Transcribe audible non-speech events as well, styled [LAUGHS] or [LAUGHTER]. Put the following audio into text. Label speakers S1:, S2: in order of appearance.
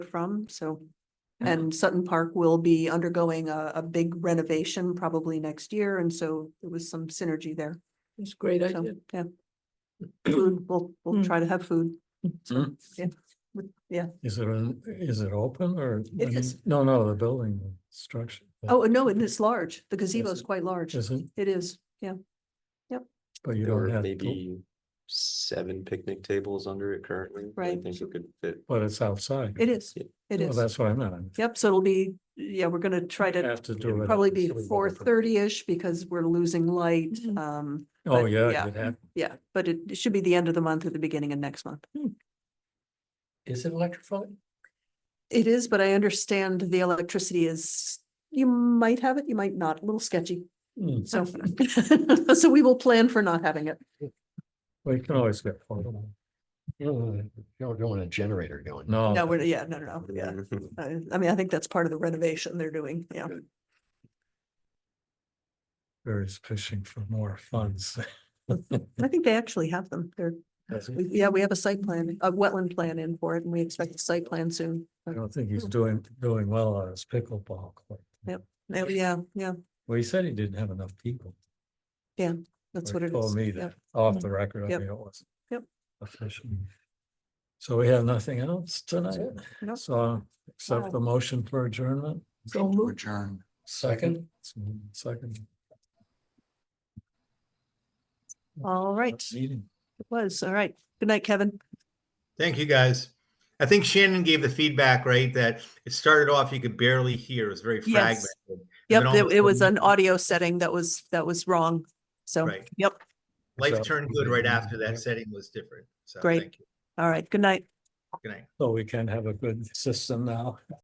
S1: from, so.
S2: Yeah.
S1: And Sutton Park will be undergoing a, a big renovation probably next year, and so there was some synergy there.
S2: It's a great
S1: So,
S2: idea.
S3: [CLEARS THROAT]
S1: yeah. Food, we'll, we'll
S3: Hmm.
S2: Mm.
S1: try to have food. So,
S3: Mm.
S1: yeah, with- Yeah,
S3: Is it, an- is it open or? I mean,
S1: is.
S3: No, no, the building, the structure. the-
S1: oh, no, and it's large. The gazebo is
S3: it-
S1: quite large.
S3: Is it?
S1: It is, yeah.
S3: But you
S4: There
S3: don't
S4: are
S3: have, to-
S4: maybe seven picnic tables under it currently. but I
S1: Right.
S4: think it could fit.
S3: but it's outside.
S1: It is,
S4: Yeah.
S1: it
S3: Well,
S1: is.
S3: That's what I meant.
S1: Yep, so it'll be, yeah, we're gonna try to
S3: Have to do it.
S1: probably
S3: at-
S1: be four thirty-ish because we're losing light.
S2: Mhm.
S1: Um,
S3: Oh,
S1: but
S3: yeah.
S1: yeah.
S3: you'd have-
S1: yeah, but it it should be the end of the month or the beginning of next month.
S3: Hmm. Is it electrified?
S1: It is, but I understand the electricity is, you might have it, you might not, a little sketchy.
S3: Hmm,
S1: So,
S3: [LAUGHS]
S1: so we will plan for not having it.
S3: Well, you can always get. photo.
S5: You don't want a generator going.
S3: No.
S1: No, we're, yeah, no, no, no, yeah.
S3: [LAUGHS]
S1: Uh, I mean, I think that's part of the renovation they're doing, yeah.
S3: Barry's fishing for more funds. [LAUGHS]
S1: I think they actually have them. They're,
S3: Does he?
S1: we- yeah, we have a site plan, a wetland plan in for it, and we expect a site plan soon.
S3: I don't think he's doing, doing well on his pickleball court.
S1: Hmm. Yep. Uh, Yeah, yeah,
S3: Well, he said he didn't have enough people.
S1: that's
S3: or
S1: what it
S3: Told
S1: is.
S3: me
S1: yeah.
S3: that, off the record, I
S1: Yep.
S3: mean, it was.
S1: Yep.
S3: Official. So we have nothing else tonight,
S1: Nope.
S3: so accept the motion for adjournment.
S2: So moved.
S5: Return.
S3: Second. Second.
S1: All right, it
S3: Meeting.
S1: was, all right. Good night, Kevin.
S6: Thank you, guys. I think Shannon gave the feedback, right? That it started off, you could barely hear. It was very
S1: Yes.
S6: fragmented. And then
S1: Yep,
S6: all of
S1: it
S6: a
S1: it was
S6: sudden-
S1: an audio setting that was, that was wrong. So,
S6: Right.
S1: yep,
S6: Life turned good right after that setting was different. So
S1: Great.
S6: thank you.
S1: all right, good night.
S6: Good night.
S3: So we can have a good system now.